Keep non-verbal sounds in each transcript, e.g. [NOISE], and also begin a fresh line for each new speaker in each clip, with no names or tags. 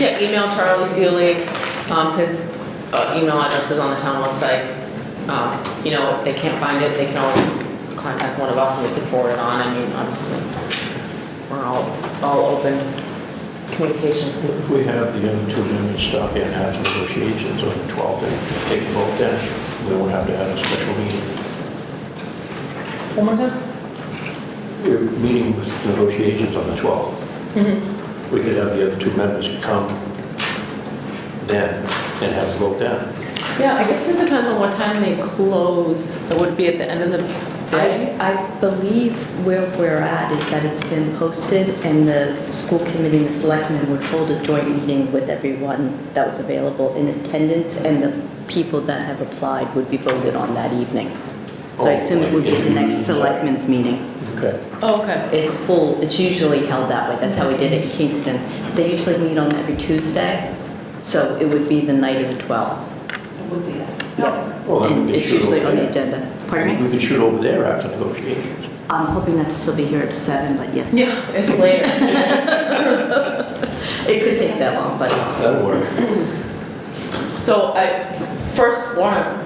Yeah, email Charlie Seelig, um, his uh, email address is on the town website. Um, You know, if they can't find it, they can always contact one of us and we can forward it on, I mean, obviously, we're all, all open communication.
If we have the other two amendments stop and have some negotiations on the 12th and take a vote then, we won't have to have a special meeting.
One more time?
We're meeting with negotiations on the 12th. We could have the other two members come then and have a vote then.
Yeah, I guess it depends on what time they close, it would be at the end of the day.
I, I believe where we're at is that it's been posted and the school committee and the selectmen would hold a joint meeting with everyone that was available in attendance and the people that have applied would be voted on that evening. So I assume it would be the next selectmen's meeting.
Okay.
Oh, okay.
If full, it's usually held that way, that's how we did it in Kingston. They usually meet on every Tuesday, so it would be the night of the 12th.
Well, then we
And
can
it's
shoot
usually
over
on the
there.
agenda. Pardon
We
me?
can shoot over there after negotiations.
I'm hoping not to still be here at seven, but yes.
Yeah, it's later.
It could take that long, but
That'll work.
So I first want to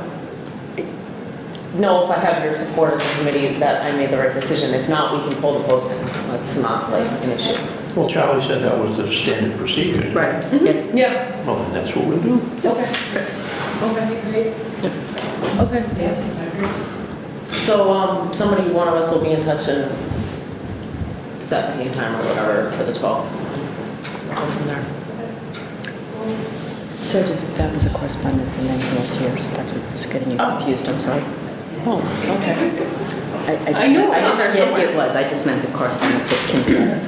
know if I have your support as a committee that I made the right decision. If not, we can pull the posting. That's not like an issue.
Well, Charlie said that was the standard procedure.
right,
Mm-hmm.
yes,
Yeah.
Well, then that's what we'll do.
Okay. Okay, great. Okay. So um, somebody, one of us will be in touch and set a meeting time or whatever for the 12th. Go from there.
so just, that was a correspondence and then yours here, so that's what was getting you
Oh.
confused, I'm sorry.
Oh, okay.
I
I knew it was
I
on there
just yeah,
somewhere.
It was, I just meant the correspondence with Kim.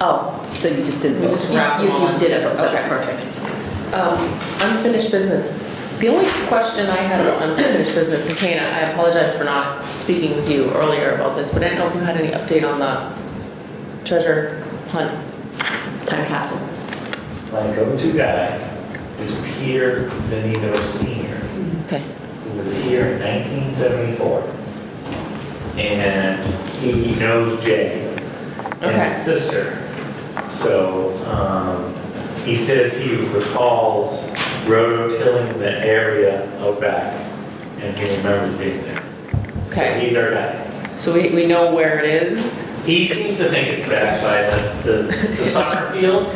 Oh, so you just didn't.
We just
you-
wrapped
you-
them all
You
in.
did it,
Okay.
that's perfect.
Um, Unfinished business. The only question I had about unfinished business, and Kane, I apologize for not speaking with you earlier about this, but I didn't know if you had any update on the treasure hunt time capsule.
My go-to guy is Peter Benito Senior,
Okay.
who was here in 1974. And he knows Jay and
Okay.
his sister. So, um, he says he recalls rototilling the area out back, and he remembers being there. So
Okay,
He's our guy.
so we, we know where it is.
He seems to think it's back by the, the the soccer field,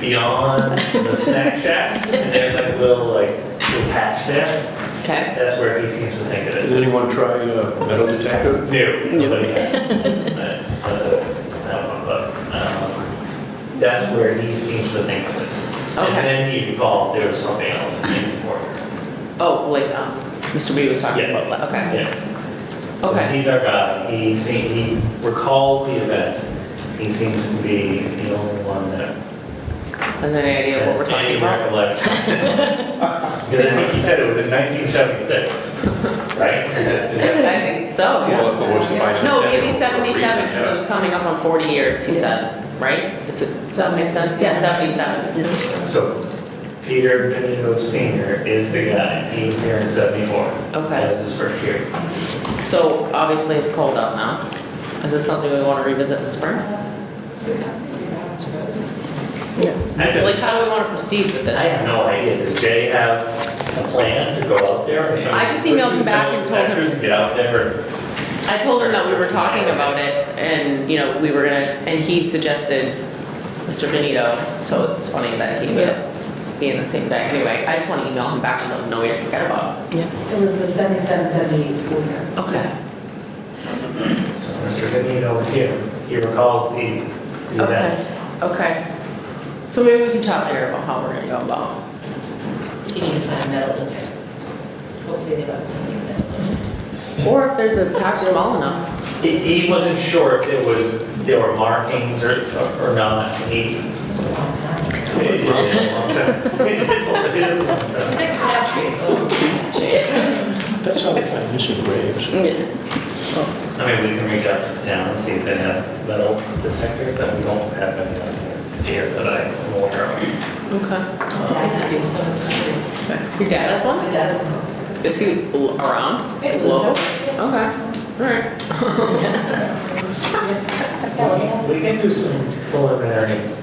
beyond the snack shack, and there's like a little, like, little patch there.
Okay.
That's where he seems to think it
Does
is.
anyone try uh, metal detector?
New. like, uh, uh, I don't know, but, um, That's where he seems to think it is.
Okay.
And then he recalls there was something else in the corner.
Oh, like, um, Mr. B was talking
Yeah.
about, that. okay.
Yeah.
Okay,
He's our guy. He seems, he recalls the event. He seems to be the only one that
and then any idea what we're talking about?
[LAUGHS] Because I think he said it was in 1976, right? [LAUGHS]
I think so,
Well, if it was the
yeah. No, maybe
bicentennial,
seventy-seven, because it was coming up on forty years, he
Yeah.
said, right? Is it, does that make sense? Yeah, seventy-seven.
So Peter Benito Senior is the guy. He was here in 74. That was his first year.
So obviously it's cold out now. Is this something we want to revisit in spring?
So now, I suppose.
I
Like,
don't-
how do we want to proceed with
I
this?
have no idea. Does Jay have a plan to go out there? mean,
I just emailed him back and told him-
Actors Get out there.
I told him that we were talking about it and, you know, we were gonna, and he suggested Mr. Benito, so it's funny that he would be in the same day. Anyway, I just want to email him back and let him know we didn't forget about it.
It was the 77, 78 school year.
Okay.
So Mr. Benito was here. He recalls the the event.
Okay, okay. So maybe we can talk later about how we're gonna go about.
You need to find metal detectors. Hopefully they got some new metal detectors.
Or if there's a patch small enough.
He he wasn't sure if it was, there were markings or or not. He
It's a long time.
It [LAUGHS]
It's
is.
next to that tree.
That's how we find missing graves.
I mean, we can reach out to the town and see if they have metal detectors, and we don't have any out here that I'm aware of.
Okay.
It's a few, so excited.
Your dad has one?
My dad.
Is he l- around?
Yeah.
Local? Okay, all right.
We can do some preliminary